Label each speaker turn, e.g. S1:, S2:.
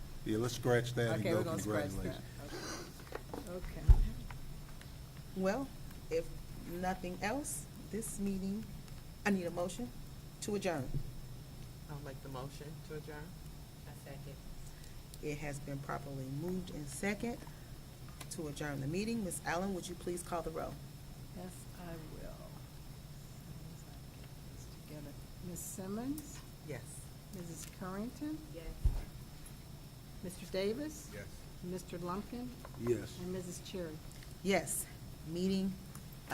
S1: Yeah, let's scratch that and
S2: Okay,
S1: go
S2: we're gonna scratch
S1: congratulations.
S2: that. Okay.
S3: Well, if nothing else, this meeting, I need a motion to adjourn.
S4: I'll make the motion to adjourn.
S5: I second.
S3: It has been properly moved and second to adjourn the meeting. Ms. Allen, would you please call the roll?
S2: Yes, I will. As soon as I get this together. Ms. Simmons,
S4: Yes.
S2: Mrs. Currington,
S5: Yes.
S2: Mr. Davis,
S1: Yes.
S2: Mr. Lumpkin,
S1: Yes.
S2: and Mrs. Cherry.
S3: Yes, meeting